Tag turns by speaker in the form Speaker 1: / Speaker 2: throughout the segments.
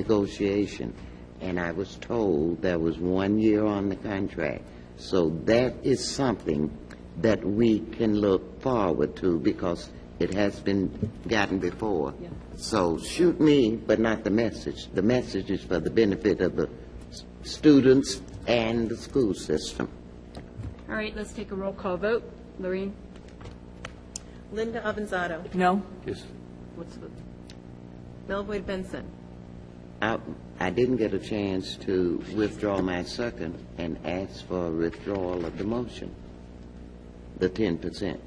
Speaker 1: negotiation, and I was told there was one year on the contract. So that is something that we can look forward to because it has been gotten before. So shoot me, but not the message. The message is for the benefit of the s- students and the school system.
Speaker 2: All right, let's take a roll call vote. Lorraine?
Speaker 3: Linda Avanzado.
Speaker 2: No.
Speaker 4: Yes.
Speaker 2: What's the?
Speaker 3: Melvoin Benson.
Speaker 1: I, I didn't get a chance to withdraw my second and ask for a withdrawal of the motion, the ten percent.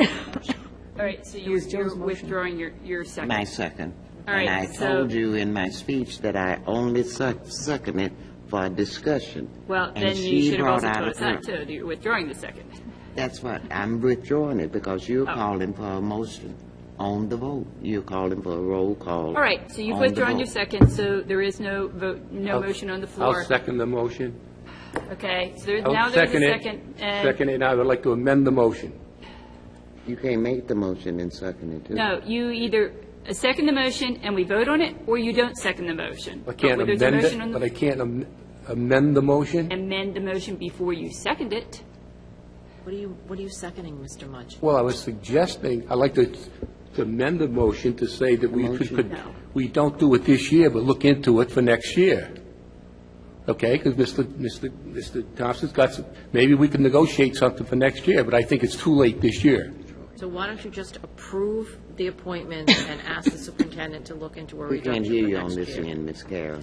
Speaker 2: All right, so you're you're withdrawing your, your second.
Speaker 1: My second.
Speaker 2: All
Speaker 1: And
Speaker 2: right,
Speaker 1: I
Speaker 2: so-
Speaker 1: told you in my speech that I only sec- second it for discussion.
Speaker 2: Well,
Speaker 1: And
Speaker 2: then you
Speaker 1: she
Speaker 2: should have
Speaker 1: brought
Speaker 2: also
Speaker 1: out
Speaker 2: told
Speaker 1: a
Speaker 2: us that,
Speaker 1: girl.
Speaker 2: too, that you're withdrawing the second.
Speaker 1: That's what, I'm withdrawing it because
Speaker 2: Oh.
Speaker 1: you're calling for a motion on the vote. You're calling for a roll call.
Speaker 2: All right, so you've
Speaker 1: on the
Speaker 2: withdrawn your
Speaker 1: vote.
Speaker 2: second, so there is no vote, no motion on the floor.
Speaker 4: I'll second the motion.
Speaker 2: Okay, so there,
Speaker 4: I'll
Speaker 2: now there's a
Speaker 4: it.
Speaker 2: second. and-
Speaker 4: Second it, I would like to amend the motion.
Speaker 1: You can't make the motion and second it, too.
Speaker 2: No, you either second the motion and we vote on it, or you don't second the motion.
Speaker 4: I can't
Speaker 2: But
Speaker 4: amend
Speaker 2: Oh, there's a motion on
Speaker 4: it,
Speaker 2: the
Speaker 4: but I can't am- amend the motion.
Speaker 2: Amend the motion before you second it.
Speaker 5: What are you, what are you seconding, Mr. Mudge?
Speaker 4: Well, I was suggesting, I'd like to to amend the motion to say that we could- could,
Speaker 2: No.
Speaker 4: we don't do it this year, but look into it for next year. Okay, because Mr. Mr. Mr. Thompson's got some, maybe we can negotiate something for next year, but I think it's too late this year.
Speaker 5: So why don't you just approve the appointment and ask the superintendent to look into a
Speaker 1: We
Speaker 5: reduction
Speaker 1: can't
Speaker 5: for
Speaker 1: hear you on
Speaker 5: next
Speaker 1: this
Speaker 5: year?
Speaker 1: end, Ms. Carroll.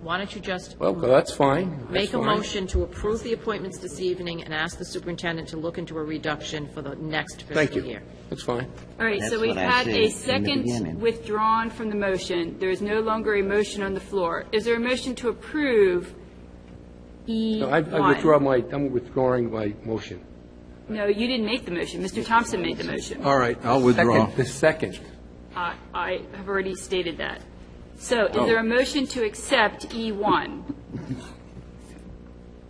Speaker 5: Why don't you just
Speaker 4: Well, that's fine. That's
Speaker 5: make a
Speaker 4: fine.
Speaker 5: motion to approve the appointments this evening and ask the superintendent to look into a reduction for the next
Speaker 4: Thank
Speaker 5: fiscal
Speaker 4: you.
Speaker 5: year?
Speaker 4: That's fine.
Speaker 2: All right, so
Speaker 1: That's
Speaker 2: we've
Speaker 1: what I
Speaker 2: had
Speaker 1: said
Speaker 2: a
Speaker 1: in the
Speaker 2: second
Speaker 1: beginning.
Speaker 2: withdrawn from the motion. There is no longer a motion on the floor. Is there a motion to approve E E1?
Speaker 4: No, I I withdraw my, I'm withdrawing my motion.
Speaker 2: No, you didn't make the motion. Mr. Thompson made the motion.
Speaker 6: All right, I'll withdraw.
Speaker 4: Second, the second.
Speaker 2: I I have already stated that. So is
Speaker 4: Oh.
Speaker 2: there a motion to accept E E1?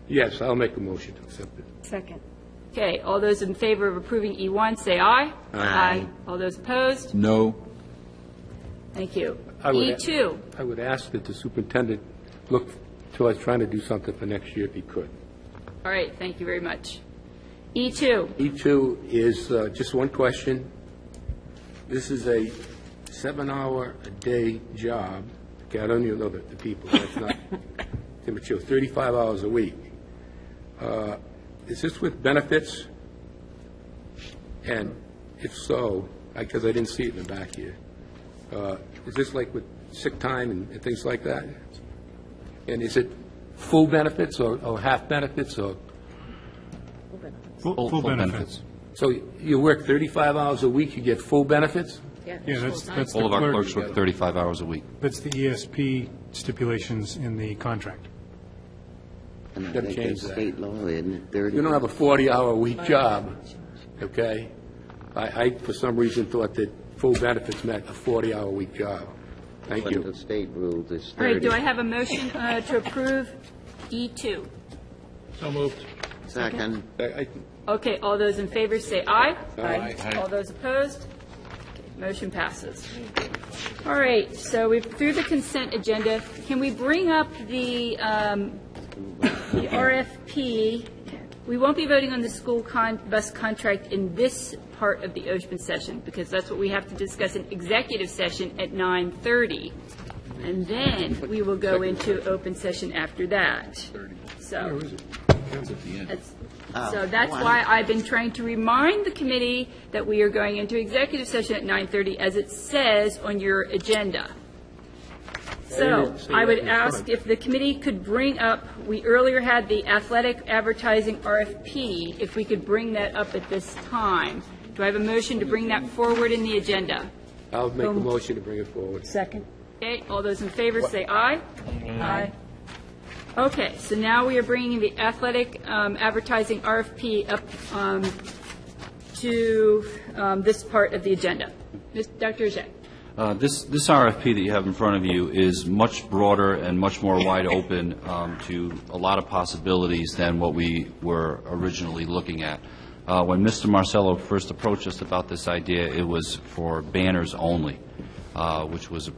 Speaker 4: Yes, I'll make a motion to accept it.
Speaker 2: Second. Okay, all those in favor of approving E1, say aye. Aye. All those opposed?
Speaker 6: No.
Speaker 2: Thank you. E
Speaker 4: I would-
Speaker 2: E2,
Speaker 4: I would ask that the superintendent look towards trying to do something for next year if he could.
Speaker 2: all right, thank you very much. E E2,
Speaker 4: E2 is uh, just one question. This is a seven-hour-a-day job. Okay, I don't even know the the people, that's not immature, 35 hours a week. Uh, Is this with benefits? And if so, because I didn't see it in the back here, uh, is this like with sick time and and things like that? And is it full benefits or or half benefits or?
Speaker 7: Full benefits.
Speaker 4: So you work 35 hours a week, you get full benefits?
Speaker 7: Yeah, that's, that's the
Speaker 8: All of our clerks
Speaker 7: clerk,
Speaker 8: work 35 hours a week.
Speaker 7: that's the ESP stipulations in the contract.
Speaker 1: And I
Speaker 4: Gotta
Speaker 1: think
Speaker 4: change
Speaker 1: that's
Speaker 4: that.
Speaker 1: state law, isn't it, thirty?
Speaker 4: You don't have a 40-hour-a-week job, okay? I, I, for some reason, thought that full benefits meant a 40-hour-a-week job. Thank
Speaker 1: But the
Speaker 4: you.
Speaker 1: state rules is
Speaker 2: all right,
Speaker 1: thirty.
Speaker 2: do I have a motion uh, to approve E E2?
Speaker 4: So moved.
Speaker 1: Second.
Speaker 2: Okay, all those in favor, say aye.
Speaker 4: Aye.
Speaker 2: All those opposed? Okay, Motion passes. All right, so we've, through the consent agenda, can we bring up the um, the RFP? We won't be voting on the school con, bus contract in this part of the open session, because that's what we have to discuss in executive session at 9:30. And then we will go into open session after that. So. That's- So that's why I've been trying to remind the committee that we are going into executive session at 9:30, as it says on your agenda. So
Speaker 4: didn't say
Speaker 2: I
Speaker 4: that
Speaker 2: would
Speaker 4: in front.
Speaker 2: ask if the committee could bring up, we earlier had the athletic advertising RFP, if we could bring that up at this time. Do I have a motion to bring that forward in the agenda?
Speaker 4: I'll make a motion to bring it forward.
Speaker 2: Okay, all those in favor say aye. Aye. Okay, so now we are bringing the athletic um, advertising RFP up um, to um, this part of the agenda. Ms. Dr. Ajay?
Speaker 8: Uh, This this RFP that you have in front of you is much broader and much more wide open um, to a lot of possibilities than what we were originally looking at. Uh, When Mr. Marcello first approached us about this idea, it was for banners only, uh, which was